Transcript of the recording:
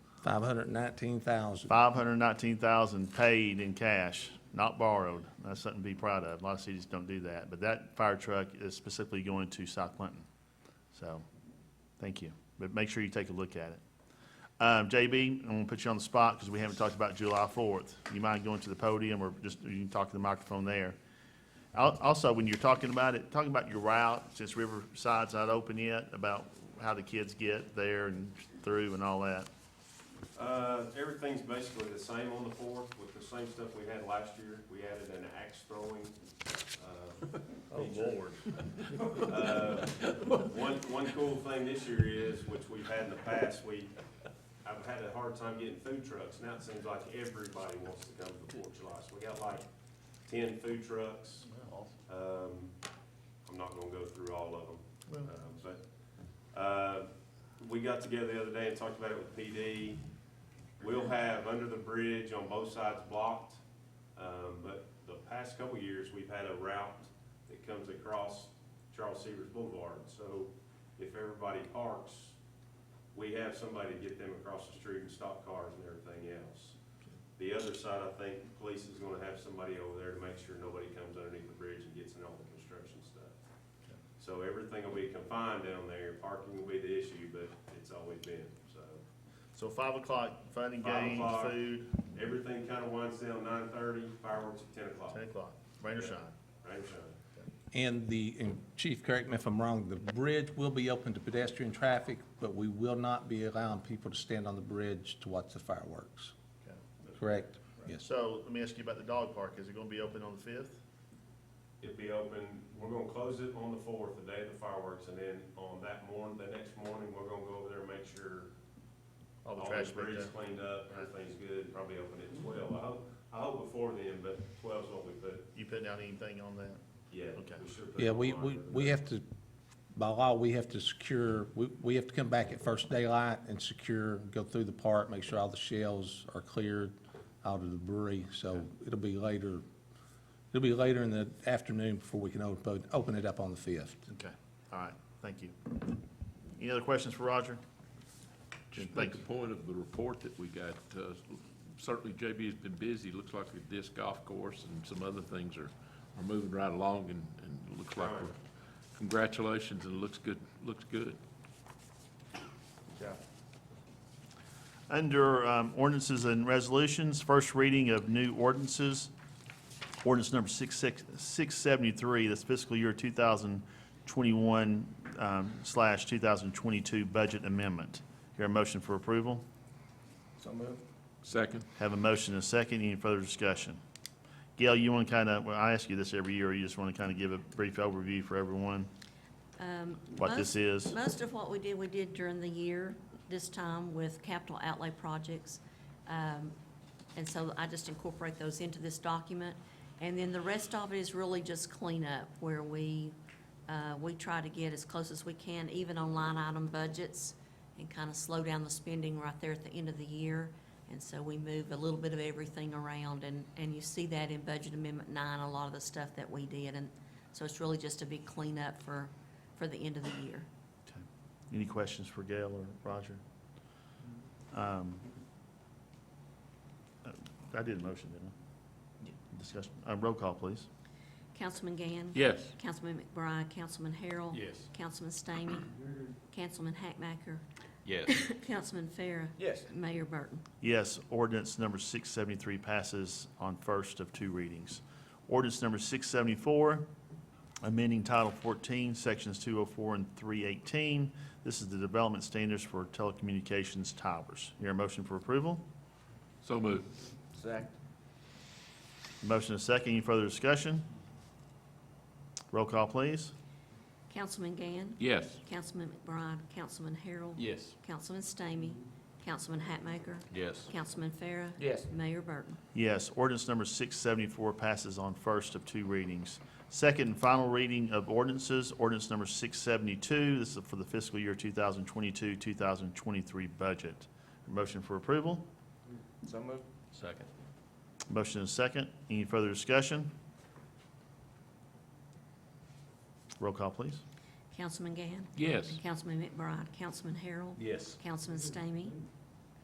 Five hundred and nineteen thousand. Five hundred nineteen thousand paid in cash, not borrowed. That's something to be proud of. A lot of cities don't do that, but that fire truck is specifically going to South Clinton. So, thank you. But make sure you take a look at it. Um, JB, I'm gonna put you on the spot because we haven't talked about July fourth. You mind going to the podium or just, you can talk to the microphone there. Al- Also, when you're talking about it, talking about your route, since Riverside's not open yet, about how the kids get there and through and all that. Uh, everything's basically the same on the fourth with the same stuff we had last year. We added an axe throwing, uh, Oh, Lord. Uh, One, one cool thing this year is, which we've had in the past, we, I've had a hard time getting food trucks. Now it seems like everybody wants to come to the Fourth of July. So we got like ten food trucks. Um, I'm not gonna go through all of them, uh, but, uh, we got together the other day and talked about it with PD. We'll have under the bridge on both sides blocked, um, but the past couple of years, we've had a route that comes across Charles Severs Boulevard. So if everybody parks, we have somebody to get them across the street and stop cars and everything else. The other side, I think, police is gonna have somebody over there to make sure nobody comes underneath the bridge and gets in all the construction stuff. So everything will be confined down there, parking will be the issue, but it's always been, so. So five o'clock, fun and Five games, o'clock. food, Everything kinda winds down nine thirty, fireworks at ten o'clock, ten o'clock, rain or shine. rain or shine. And the, and Chief, correct me if I'm wrong, the bridge will be open to pedestrian traffic, but we will not be allowing people to stand on the bridge to watch the fireworks, Okay. correct? Yes. So let me ask you about the dog park. Is it gonna be open on the fifth? It'll be open, we're gonna close it on the fourth, the day of the fireworks, and then on that morning, the next morning, we're gonna go over there and make sure All the all trash the breaks bridge down? cleaned up, everything's good, probably open at twelve. I hope, I hope before then, but twelve's what we put, You putting out anything on that? yeah, Okay. we should put. Yeah, it we, on we, there. we have to, by law, we have to secure, we, we have to come back at first daylight and secure, go through the park, make sure all the shells are cleared out of the debris, so it'll be later, it'll be later in the afternoon before we can open, open it up on the fifth. Okay, all right, thank you. Any other questions for Roger? Just Thank make a point of the report that we got. uh, Certainly JB has been busy. Looks like the disc golf course and some other things are, are moving right along and, and it looks like Right. we're, congratulations and it looks good, looks good. Yeah. Under um, ordinances and resolutions, first reading of new ordinances. Ordinance number six six six seventy-three. that's fiscal year 2021 um, slash 2022 budget amendment. Here a motion for approval? So moved. Second, Have a motion and a second. Any further discussion? Gail, you want to kind of, well, I ask you this every year, or you just want to kind of give a brief overview for everyone, Um, what most- this is? Most of what we did, we did during the year, this time with capital outlay projects. Um, And so I just incorporate those into this document. And then the rest of it is really just cleanup, where we, uh, we try to get as close as we can, even on line item budgets, and kind of slow down the spending right there at the end of the year. And so we move a little bit of everything around, and, and you see that in Budget Amendment Nine, a lot of the stuff that we did. And so it's really just a big cleanup for, for the end of the year. Any questions for Gail or Roger? Um, uh, I did a motion, didn't I? Discussion, uh, roll call, please. Councilman Gann? yes. Councilman McBride, Councilman Harrell? Yes. Councilman Stamey? Councilman Hackmacher? Yes. Councilman Farah? Yes. Mayor Burton? Yes, ordinance number 673 passes on first of two readings. Ordinance number 674, amending Title 14, Sections 204 and 318. This is the development standards for telecommunications towers. Hear a motion for approval? So moved. Second. Motion and second. Any further discussion? Roll call, please. Councilman Gann? Yes. Councilman McBride, Councilman Harrell? Yes. Councilman Stamey? Councilman Hackmacher? Yes. Councilman Farah? Yes. Mayor Burton? Yes, ordinance number 674 passes on first of two readings. Second and final reading of ordinances, ordinance number 672, this is for the fiscal year 2022, 2023 budget. Motion for approval, So moved. Second. motion and second. Any further discussion? Roll call, please. Councilman Gann? Yes. Councilman McBride, Councilman Harrell? Yes. Councilman Stamey?